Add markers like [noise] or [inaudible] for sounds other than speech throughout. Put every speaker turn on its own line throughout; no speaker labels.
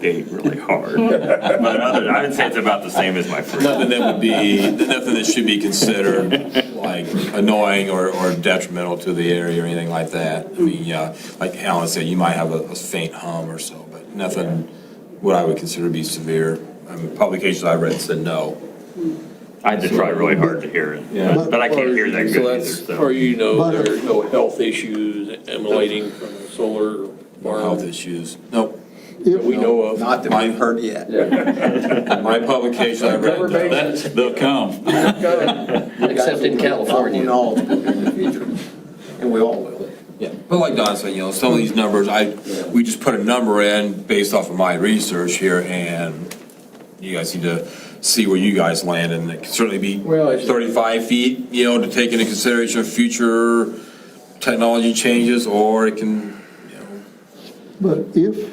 date really hard. But other, I would say it's about the same as my first.
Nothing that would be, nothing that should be considered like annoying or or detrimental to the area or anything like that. I mean, uh, like Alan said, you might have a a faint hum or so, but nothing what I would consider to be severe. I mean, publications I read said no.
I had to try really hard to hear it,
Yeah.
but I can't hear that
So uh,
good either,
that's, or
so.
you know,
But-
there's no health issues emanating from a solar
No health
farm
issues. Nope.
that we know of.
Not that we've heard yet.
My publication I read, no.
That- They'll come.
Except in California. We'll know in the future, and we all will.
Yeah, but like Don said, you know, some of these numbers, I, we just put a number in based off of my research here, and you guys need to see where you guys land, and it can certainly be
Well, it's-
thirty-five feet, you know, to take into consideration future technology changes, or it can, you know,
But if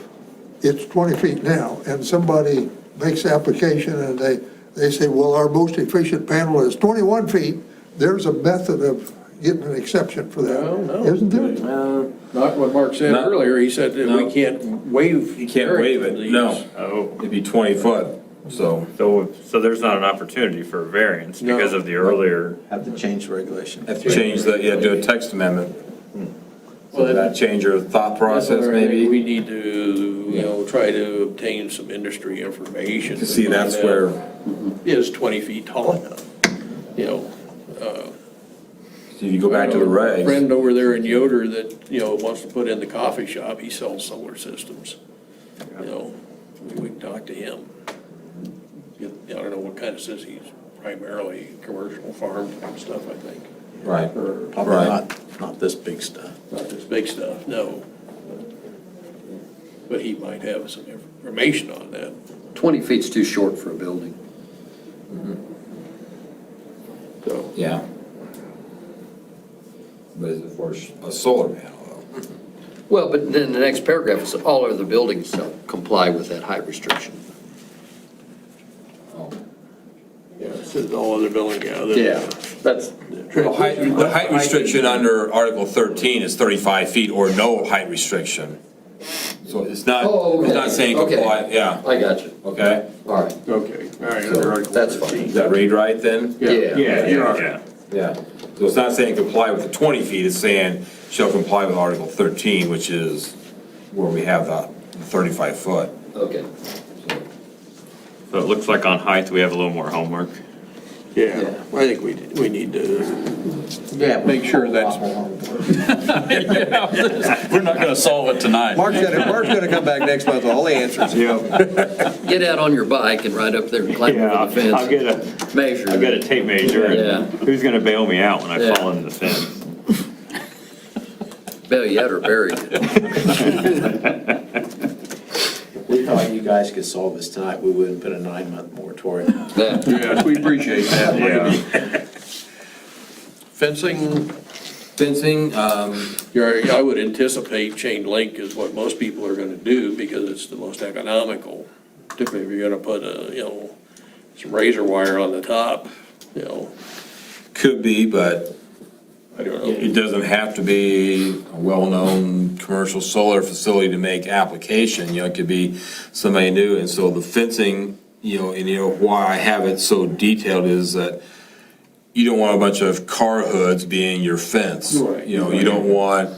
it's 20 feet now, and somebody makes application and they, they say, well, our most efficient panel is 21 feet, there's a method of getting an exception for that,
No, no.
isn't there?
Uh, Not what Mark said
No.
earlier, he said that
No.
we can't waive.
you can't waive it,
variance.
no.
Oh,
It'd be twenty foot, so.
so, so there's not an opportunity for a variance
No.
because of the earlier,
Have to change the regulation.
Have to change the, yeah, do a text amendment. So
Well,
that change your thought
That's
process,
where
maybe?
We need to, you know, try to obtain some industry information.
To see
to
that's
find out
where,
Is 20 feet tall enough, you know?
so you go back to the regs.
Uh, Friend over there in Yoder that, you know, wants to put in the coffee shop, he sells solar systems. You know, we can talk to him. Get- I don't know what kind of says he's primarily commercial farm type stuff, I think.
Right,
Probably
right.
not, not this big stuff.
Not this big stuff, no. But he might have some information on that.
20 feet's too short for a building.
So,
Yeah. But is it for a solar panel though?
Well, but then the next paragraph is all other buildings shall comply with that height restriction.
yeah, it says all other building, yeah. the-
that's.
The height, the height restriction under Article thirteen is thirty-five feet or no height restriction. So it's not,
Oh,
it's
okay,
not saying
okay.
comply, yeah,
I got you.
okay?
All right.
Okay, all right.
So,
under Article
that's
13.
Does that read right then?
Yeah.
yeah, yeah, yeah.
Yeah. So it's not saying comply with the twenty feet, it's saying shall comply with Article thirteen, which is where we have the thirty-five foot.
Okay.
So it looks like on height, we have a little more homework.
Yeah, I think we, we need to
Yeah.
Make sure that's-
[laughs] We're not going to solve it tonight.
Mark's gonna, Mark's gonna come back next month with all the answers.
Get out on your bike and ride up there and climb
Yeah,
over the fence.
I'll get a,
Measure.
I'll get a tape measure
Yeah.
and who's gonna bail me out when I
Yeah.
fall in the fence?
Bail you out or bury you.
We thought you guys could solve this tonight, we wouldn't put a nine-month moratorium.
Yeah.
Yes, we appreciate that.
Yeah,
Fencing,
Fencing, um,
you're- I would anticipate chain link is what most people are gonna do because it's the most economical. Particularly if you're gonna put a, you know, some razor wire on the top, you know,
could be, but
I don't know.
It doesn't have to be a well-known commercial solar facility to make application, you know, it could be somebody new, and so the fencing, you know, and you know, why I have it so detailed is that you don't want a bunch of car hoods being your fence.
Right.
You know, you don't want,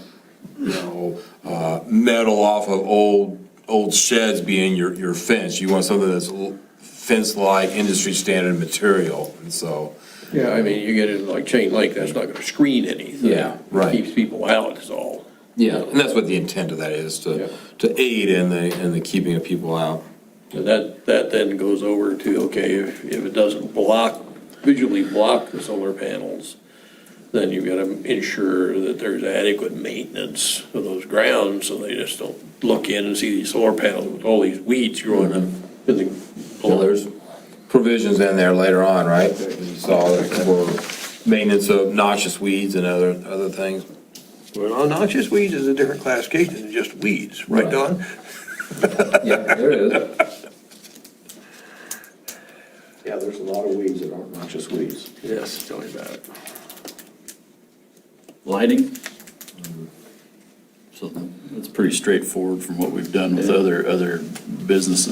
you know, uh, metal off of old, old sheds being your, your fence. You want something that's l- fence-like, industry-standard material, and so.
Yeah, I mean, you get it like chain link, that's not gonna screen anything.
Yeah, right.
Keeps people out is all.
Yeah, and that's what the intent of that is,
Yeah.
to, to aid in the, in the keeping of people out.
And that, that then goes over to, okay, if, if it doesn't block, visually block the solar panels, then you've got to ensure that there's adequate maintenance of those grounds, so they just don't look in and see these solar panels with all these weeds growing up in the.
Well, there's provisions in there later on, right? that You saw that for maintenance of noxious weeds and other, other things.
Well, noxious weeds is a different classification than just weeds, right,
Right.
Don?
Yeah, there is.
Yeah, there's a lot of weeds that aren't noxious weeds.
Yes, tell me about it.
Lighting?
So it's pretty straightforward from what we've done with other, other businesses